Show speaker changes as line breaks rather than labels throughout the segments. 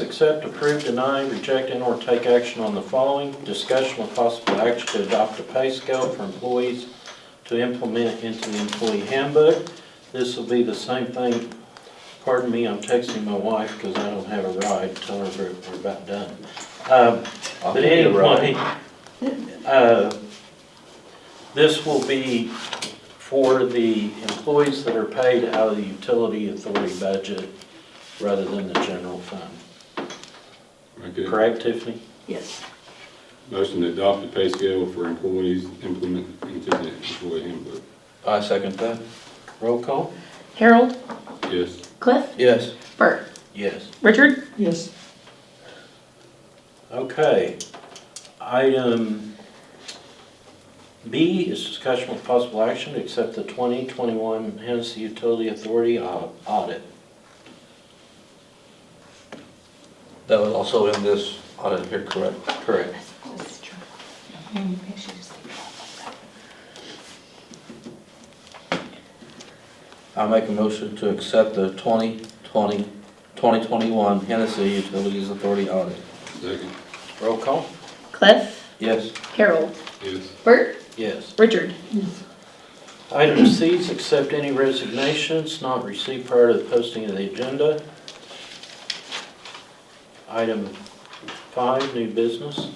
Accept, approve, deny, reject, and/or take action on the following. Discussion with possible action to adopt a pay scale for employees to implement into the employee handbook. This will be the same thing, pardon me, I'm texting my wife because I don't have a ride, tell her we're we're about done. Um,
I'll
But
give you a ride.
anyway, uh, this will be for the employees that are paid out of the utility authority budget rather than the general fund.
Okay,
Correct, Tiffany?
Yes.
motion to adopt the pay scale for employees implement into the employee handbook.
I second that.
Roll call?
Harold,
Yes,
Cliff,
Yes.
Bert,
Yes.
Richard,
Yes.
Okay. Item B is discussion with possible action to accept the 2021 Hennessy Utility Authority au- audit.
That was also in this audit here, correct?
Correct.
I make a motion to accept the 2020, 2021 Hennessy Utilities Authority audit.
second,
Roll call?
Cliff,
Yes.
Harold,
yes,
Bert,
Yes.
Richard.
Item C is accept any resignations not received prior to the posting of the agenda. Item five, new business.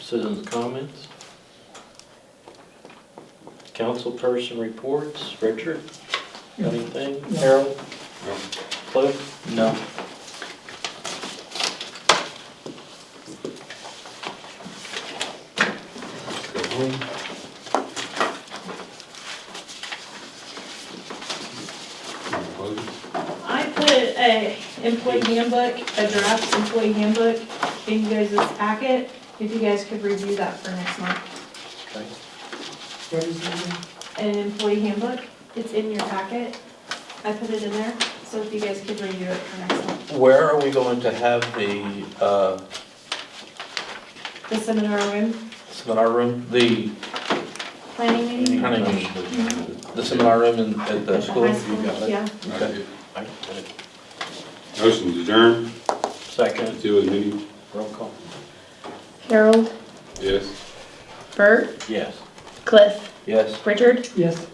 Citizens' comments. Councilperson reports. Richard, got anything?
No.
Harold?
No.
Cliff?
No.
go home. Close.
I put a employee handbook, a draft employee handbook in you guys' packet, if you guys could review that for next month.
Okay.
What is it again?
An employee handbook, it's in your packet, I put it in there, so if you guys could review it for next month.
Where are we going to have the uh,
The seminar room,
seminar room? The,
planning meeting,
Planning the seminar room in, at the
at the high
school?
school, yeah.
Okay.
I got it.
Motion to adjourn,
Second,
until the meeting,
roll call.
Harold,
yes.
Bert,
Yes.
Cliff,
Yes.
Richard.
Yes.